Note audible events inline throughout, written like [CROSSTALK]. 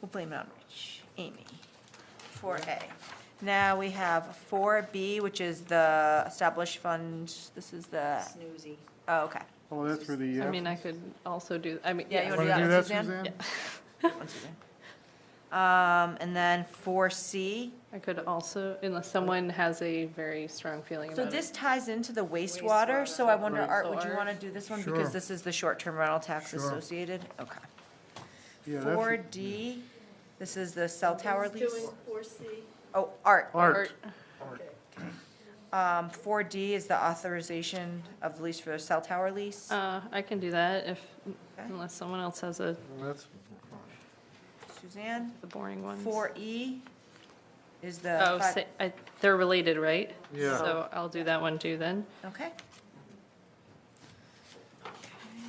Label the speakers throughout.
Speaker 1: We'll blame it on Rich, Amy. 4A. Now we have 4B, which is the established fund. This is the,
Speaker 2: Snoozy.
Speaker 1: oh, okay.
Speaker 3: Oh, that's for the,
Speaker 4: I
Speaker 3: uh,
Speaker 4: mean, I could also do, I mean,
Speaker 1: Yeah, you
Speaker 4: yes.
Speaker 1: wanna
Speaker 3: wanna
Speaker 1: do
Speaker 3: do
Speaker 1: that,
Speaker 3: that,
Speaker 1: Suzanne?
Speaker 3: Suzanne?
Speaker 1: [LAUGHS] One second. Um, And then 4C.
Speaker 4: I could also, unless someone has a very strong feeling
Speaker 1: So
Speaker 4: about
Speaker 1: this
Speaker 4: it.
Speaker 1: ties into the wastewater, so I wonder,
Speaker 4: Right.
Speaker 1: Art, would you
Speaker 4: Wastewater.
Speaker 1: want to do this one?
Speaker 3: Sure.
Speaker 1: Because this is the short-term rental tax
Speaker 3: Sure.
Speaker 1: associated? Okay.
Speaker 3: Yeah, that's-
Speaker 1: 4D, this is the cell tower lease.
Speaker 5: Doing four C.
Speaker 1: Oh, Art.
Speaker 3: Art,
Speaker 1: Um, 4D is the authorization of lease for cell tower lease.
Speaker 4: Uh, I can do that if,
Speaker 1: Okay.
Speaker 4: unless someone else has a,
Speaker 3: that's,
Speaker 1: Suzanne?
Speaker 4: the boring ones.
Speaker 1: 4E is the.
Speaker 4: Oh,
Speaker 1: fi-
Speaker 4: sa- I, they're related, right?
Speaker 3: Yeah.
Speaker 4: So I'll do that one too then.
Speaker 1: Okay,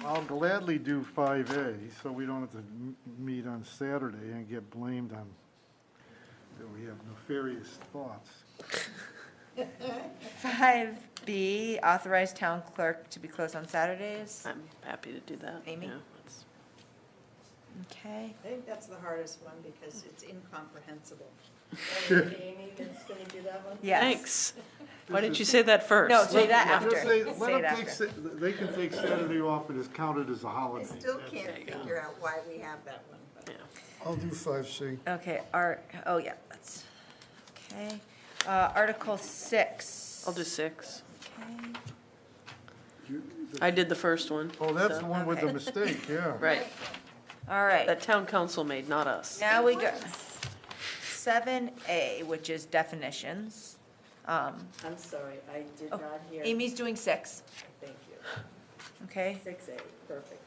Speaker 3: I'll gladly do 5A, so we don't have to m- meet on Saturday and get blamed on that we have nefarious thoughts.
Speaker 1: 5B, authorize town clerk to be closed on Saturdays.
Speaker 4: Uh,
Speaker 5: I'm happy to do that.
Speaker 1: Amy?
Speaker 5: yeah, that's-
Speaker 1: Okay,
Speaker 2: I think that's the hardest one because it's incomprehensible.
Speaker 6: Amy that's going to do that one?
Speaker 1: yes. [LAUGHS]
Speaker 5: Thanks. Why didn't you say that first?
Speaker 1: No, say that
Speaker 3: Just
Speaker 1: after,
Speaker 3: say-
Speaker 1: say
Speaker 3: let 'em
Speaker 1: it
Speaker 3: take
Speaker 1: after.
Speaker 3: Sa- They can take Saturday off, it is counted as a
Speaker 2: I
Speaker 3: holiday.
Speaker 2: still
Speaker 3: That's-
Speaker 2: can't figure out why we have that one, but.
Speaker 7: I'll do five C.
Speaker 1: Okay, Art, oh, yeah, that's, okay. Uh, Article 6.
Speaker 5: I'll do six.
Speaker 1: Okay.
Speaker 3: You- the-
Speaker 5: I did the first one.
Speaker 3: Oh, that's the
Speaker 5: so-
Speaker 3: one with the
Speaker 1: Okay.
Speaker 3: mistake, yeah.
Speaker 5: [LAUGHS] Right,
Speaker 1: All right.
Speaker 5: that town council made, not us.
Speaker 1: Now we go, seven A, which is definitions. Um,
Speaker 6: I'm sorry, I did
Speaker 1: Oh,
Speaker 6: not hear.
Speaker 1: Amy's doing six,
Speaker 6: Thank you.
Speaker 1: okay?
Speaker 6: Six A, perfect.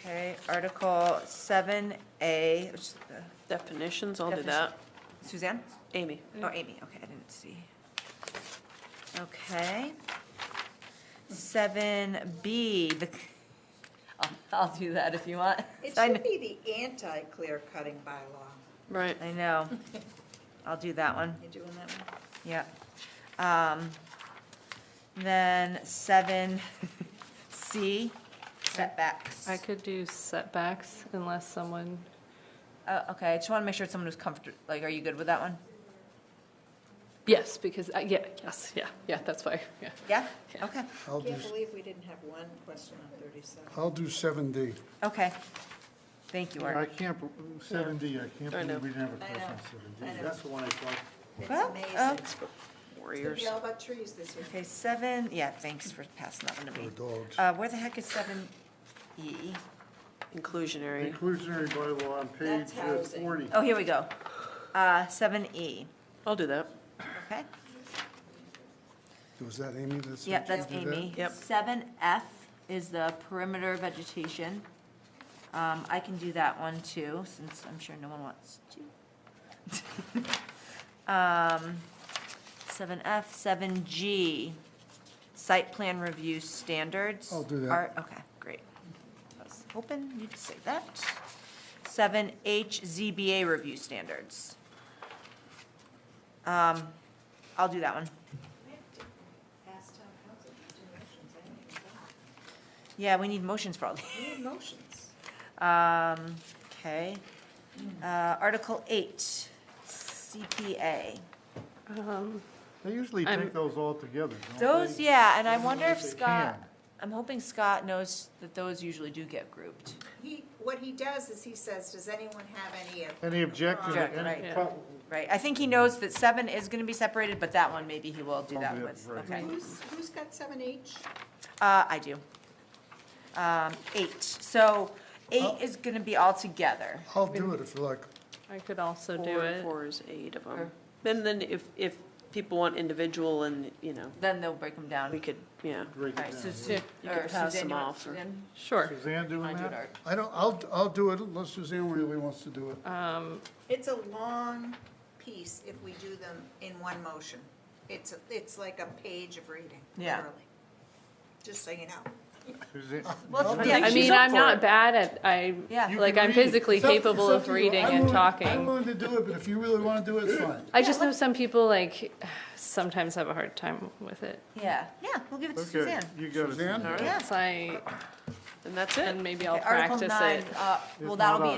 Speaker 1: Okay, Article seven A,
Speaker 5: Definitions, I'll do
Speaker 1: Definition.
Speaker 5: that.
Speaker 1: Suzanne?
Speaker 5: Amy,
Speaker 1: Oh,
Speaker 2: Mm-hmm.
Speaker 1: Amy, okay, I didn't see. Okay. Seven B, the, I'll, I'll do that if you want.
Speaker 2: It
Speaker 1: I
Speaker 2: should be the anti-clear cutting bylaw.
Speaker 5: right.
Speaker 1: I
Speaker 2: [LAUGHS]
Speaker 1: know. I'll do that one.
Speaker 2: You doing that one?
Speaker 1: Yep. Um, Then seven C, setbacks.
Speaker 4: I could do setbacks unless someone,
Speaker 1: Oh, Okay, I just want to make sure it's someone who's comfortable, like, are you good with that one?
Speaker 4: yes, because, I- yeah, yes, yeah, yeah, that's why, yeah.
Speaker 1: Yeah?
Speaker 4: Yeah.
Speaker 1: Okay,
Speaker 7: I'll do,
Speaker 2: Can't believe we didn't have one question on thirty-seven.
Speaker 7: I'll do seven D.
Speaker 1: okay. Thank you,
Speaker 3: I
Speaker 1: Art.
Speaker 3: can't, bel- 7D, I can't
Speaker 5: I know.
Speaker 3: believe we didn't have a
Speaker 2: I
Speaker 3: question on
Speaker 2: know.
Speaker 3: 7D.
Speaker 2: I know.
Speaker 3: That's the one I thought,
Speaker 2: It's
Speaker 6: Oh,
Speaker 1: Well,
Speaker 2: amazing.
Speaker 1: uh,
Speaker 2: It's gonna
Speaker 5: Warriors.
Speaker 2: be all about trees this year.
Speaker 1: Okay, seven, yeah, thanks for passing that one to me.
Speaker 7: Or dogs.
Speaker 1: Uh, Where the heck is seven E?
Speaker 5: Inclusionary.
Speaker 3: inclusionary bylaw on page
Speaker 2: That's
Speaker 3: uh,
Speaker 2: housing.
Speaker 3: 40.
Speaker 1: Oh, here we go. Seven E,
Speaker 5: I'll do that.
Speaker 1: okay?
Speaker 7: Was that Amy that said?
Speaker 1: Yep,
Speaker 7: she'd
Speaker 1: that's
Speaker 7: do that?
Speaker 1: Amy.
Speaker 5: Yep.
Speaker 1: Seven F is the perimeter vegetation. Um, I can do that one too, since I'm sure no one wants to. [LAUGHS] Um, seven F, seven G, site plan review standards.
Speaker 7: I'll do that.
Speaker 1: Are- Okay, great. I was hoping you'd say that. Seven H, ZBA review standards. Um, I'll do that one.
Speaker 2: Ask town council for two motions, I didn't even know.
Speaker 1: Yeah, we need motions for all these.
Speaker 2: We need motions.
Speaker 1: Um, okay. Uh, Article eight, CPA.
Speaker 4: Um,
Speaker 3: They usually
Speaker 4: I'm-
Speaker 3: take those all together, don't they?
Speaker 1: Those, yeah, and I wonder if
Speaker 3: They
Speaker 1: Scott,
Speaker 3: can.
Speaker 1: I'm hoping Scott knows that those usually do get grouped.
Speaker 2: He, what he does is he says, does anyone have any? of-"
Speaker 3: Any objections?
Speaker 1: Object,
Speaker 3: Any
Speaker 1: right.
Speaker 3: pro-
Speaker 1: Right, I think he knows that seven is gonna be separated, but that one maybe he will do that
Speaker 3: Probably,
Speaker 1: with,
Speaker 3: right.
Speaker 1: okay.
Speaker 2: Who's, who's got seven H?
Speaker 1: Uh, I do. Um, eight, so
Speaker 3: Oh.
Speaker 1: eight is gonna be all together.
Speaker 7: I'll do it if you like.
Speaker 4: I could also do
Speaker 5: Four and
Speaker 4: it.
Speaker 5: four is eight of
Speaker 1: Or-
Speaker 5: them. Then, then if, if people want individual and, you know,
Speaker 1: Then they'll break them down.
Speaker 5: we could, yeah.
Speaker 3: Break it
Speaker 1: All right, so
Speaker 3: down.
Speaker 1: Su-
Speaker 5: You
Speaker 1: or
Speaker 5: could pass
Speaker 1: Suzanne,
Speaker 5: them
Speaker 1: you want-
Speaker 5: off or-
Speaker 1: Suzanne?
Speaker 4: Sure.
Speaker 3: Suzanne
Speaker 1: I
Speaker 3: doing
Speaker 1: do it,
Speaker 3: that?
Speaker 1: Art.
Speaker 7: I don't, I'll, I'll do it unless Suzanne really wants to do it.
Speaker 4: Um,
Speaker 2: It's a long piece if we do them in one motion. It's, a- it's like a page of reading,
Speaker 1: Yeah.
Speaker 2: literally. Just so you know.
Speaker 3: Suzanne-
Speaker 1: Well,
Speaker 7: I'll-
Speaker 1: yeah,
Speaker 4: I
Speaker 5: she's
Speaker 4: mean,
Speaker 5: up
Speaker 4: I'm
Speaker 5: for
Speaker 4: not
Speaker 5: it.
Speaker 4: bad at, I,
Speaker 1: Yeah.
Speaker 3: You
Speaker 4: like,
Speaker 3: can
Speaker 4: I'm
Speaker 3: read.
Speaker 4: physically
Speaker 7: It's up- it's
Speaker 4: capable
Speaker 7: up
Speaker 4: of
Speaker 7: to you.
Speaker 4: reading
Speaker 7: I'm
Speaker 4: and
Speaker 7: willing- I'm
Speaker 4: talking.
Speaker 7: willing to do it, but if you really want to do it, it's fine.
Speaker 4: I just know some people, like, [SIGHS] sometimes have a hard time with it.
Speaker 1: Yeah, yeah, we'll give it to
Speaker 3: Okay,
Speaker 1: Suzanne.
Speaker 3: you got it.
Speaker 7: Suzanne?
Speaker 3: Suzanne.
Speaker 4: It's like,
Speaker 8: and that's it.
Speaker 5: and maybe I'll
Speaker 1: Okay, Article
Speaker 5: practice
Speaker 1: nine,
Speaker 5: it.
Speaker 1: uh,
Speaker 4: It's
Speaker 1: Well,
Speaker 4: not
Speaker 1: that'll be
Speaker 4: up.